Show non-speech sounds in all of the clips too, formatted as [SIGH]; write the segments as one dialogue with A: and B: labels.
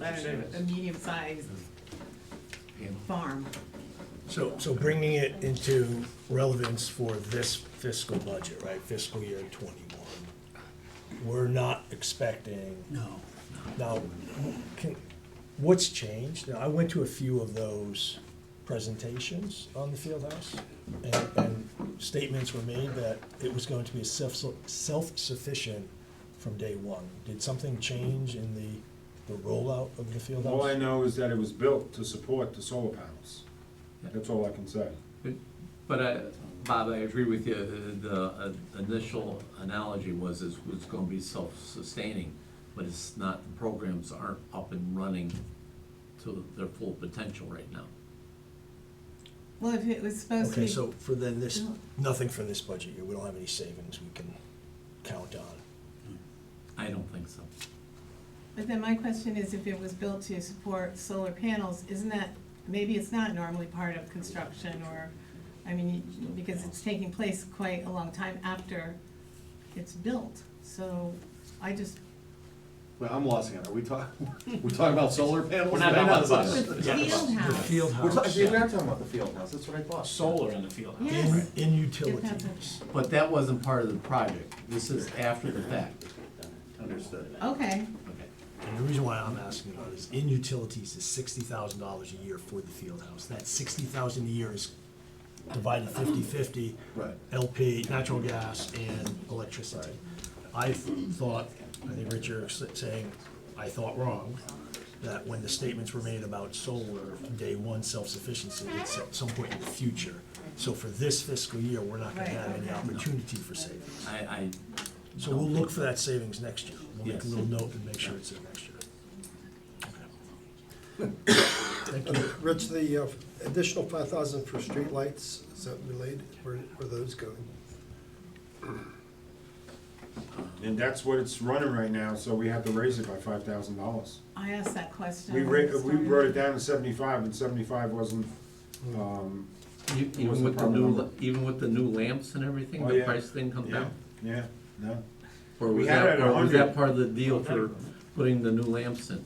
A: I don't know, a medium-sized farm.
B: So, so bringing it into relevance for this fiscal budget, right, fiscal year twenty-one, we're not expecting. No. Now, can, what's changed? Now, I went to a few of those presentations on the field house, and, and statements were made that it was going to be self, self-sufficient from day one. Did something change in the, the rollout of the field house?
C: All I know is that it was built to support the solar panels. That's all I can say.
D: But I, Bob, I agree with you, the, the uh, initial analogy was, is it's gonna be self-sustaining, but it's not, the programs aren't up and running to their full potential right now.
A: Well, if it was supposed to
B: Okay,
A: be,
B: so for then this,
A: No.
B: nothing for this budget year, we don't have any savings we can count on.
D: I don't think so.
A: but then my question is, if it was built to support solar panels, isn't that, maybe it's not normally part of construction or, I mean, you- because it's taking place quite a long time after it's built, so I just,
E: Wait, I'm lost again. Are [LAUGHS] we talking, we're talking about solar panels?
F: We're not talking about this.
A: the field house,
E: We're talking, we're not talking about the field house. That's what I thought.
F: solar in the field house.
A: yes,
B: In
A: Depends
B: utilities.
D: But that wasn't part of the project, this is after the fact.
E: Understood.
A: okay,
D: Okay.
B: And the reason why I'm asking about is in utilities is sixty thousand dollars a year for the field house. That sixty thousand a year is divided 50-50
E: Right.
B: LP, natural gas and electricity. I thought, I think Richard was saying, I thought wrong, that when the statements were made about solar, day one self-sufficiency, it's at some point in the future. So for this fiscal year, we're not gonna have any opportunity for savings.
D: I, I,
B: So we'll look for that savings next year. We'll make
D: Yes.
B: a little note and make sure it's in next year. Okay. Thank you.
G: Rich, the uh, additional five thousand for streetlights, is that related? Where, where are those going?
C: And that's what it's running right now, so we have to raise it by five thousand dollars.
A: I asked that question.
C: We
A: when
C: ra-
A: it
C: we
A: started.
C: brought it down to seventy-five, and seventy-five wasn't, um,
D: you-
C: What's
D: even
C: the
D: with the
C: problem?
D: new, la- even with the new lamps and everything,
C: Oh,
D: the
C: yeah.
D: price thing come
C: yeah,
D: down?
C: yeah, no.
D: Or
C: We
D: was
C: had
D: that,
C: it at
D: or was that
C: 100.
D: part of the deal for putting the new lamps in?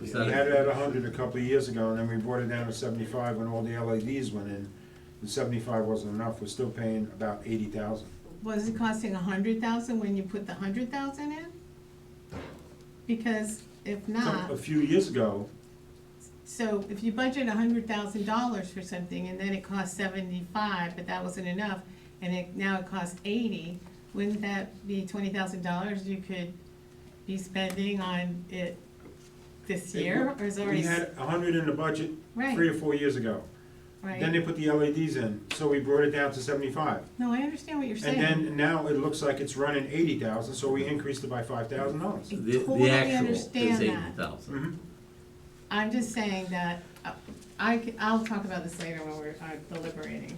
D: Was
C: We
D: that-
C: had it at a hundred a couple of years ago, and then we brought it down to seventy-five when all the LEDs went in. And seventy-five wasn't enough, we're still paying about eighty thousand.
A: Was it costing a hundred thousand when you put the hundred thousand in? Because if not,
C: A few years ago,
A: so if you budget a hundred thousand dollars for something and then it costs seventy-five, but that wasn't enough, and it, now it costs eighty, wouldn't that be twenty thousand dollars you could be spending on it this
C: It
A: year, or is
C: we
A: already,
C: had
A: s-
C: a hundred in the budget three
A: right,
C: or four years ago. Then they
A: right?
C: put the LEDs in, so we brought it down to seventy-five.
A: No, I understand what you're
C: And
A: saying.
C: then now it looks like it's running eighty thousand, so we increased it by five thousand dollars.
A: I
D: The,
A: totally
D: the actual is
A: understand that.
D: eighty thousand.
A: I'm just saying that, uh, I, c- I'll talk about this later when we're uh, deliberating.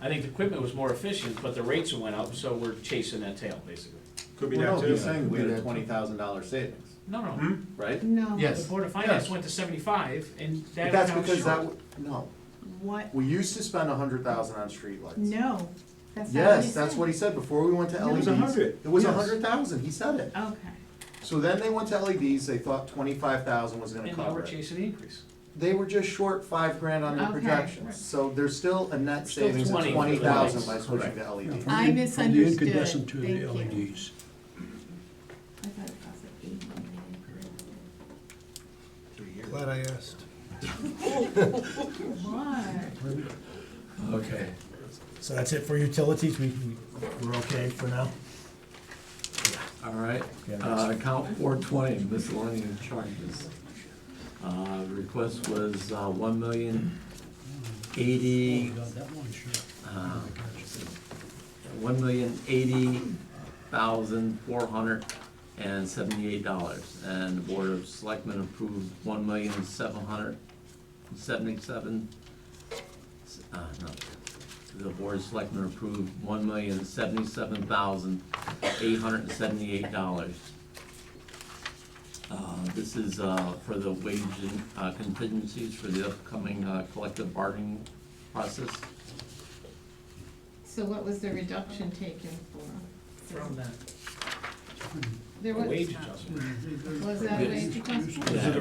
F: I think the equipment was more efficient, but the rates went up, so we're chasing that tail, basically.
C: Could be
E: We're
C: that
E: not
C: too.
E: saying we had a
G: Yeah.
E: twenty thousand dollar savings,
F: No, no,
C: Hmm?
E: right?
A: No.
D: Yes.
F: the Board of Finance went to seventy-five, and
E: But
F: that
E: that's
F: was
E: because that,
F: short.
E: w- no,
A: What?
E: we used to spend a hundred thousand on streetlights.
A: No, that's not what he
E: Yes, that's what he said before we went to
A: No. It
E: LEDs.
A: was
C: a hundred,
E: It was a
C: yes.
E: hundred thousand, he said it.
A: said. Okay,
E: So then they went to LEDs, they thought twenty-five thousand was gonna
F: And now
E: cover
F: we're
E: it.
F: chasing the increase.
E: They were just short five grand on their
A: Okay.
E: projections, so there's still a net
F: Still
E: savings of
F: 20 for the
E: twenty thousand by
F: lights.
E: switching to E LEDs.
A: I
H: From the-
A: misunderstood.
H: From the incandescent to the E
A: Thank you.
H: LEDs.
A: I thought it cost like eight million.
G: Glad I asked.
A: Why?
C: Mm-hmm.
D: Okay.
B: So that's it for utilities, we, we- we're okay for
H: Uh,
B: now?
D: All right,
B: Yeah,
D: uh, account four twenty, miscellaneous charges. Uh, request was, uh, one million eighty,
H: Got that one, sure.
D: uh,
H: um,
D: one million eighty thousand four hundred and seventy-eight dollars. And the Board of Selectmen approved one million seven hundred seventy-seven, uh, no. The Board of Selectmen approved one million seventy-seven thousand eight hundred and seventy-eight dollars. Uh, this is, uh, for the wage and uh, contingencies for the upcoming, uh, collective bargaining process.
A: So what was the reduction taken for?
F: From that
A: There was.
F: wage adjustment.
A: Was that a wage adjustment?
D: Yeah.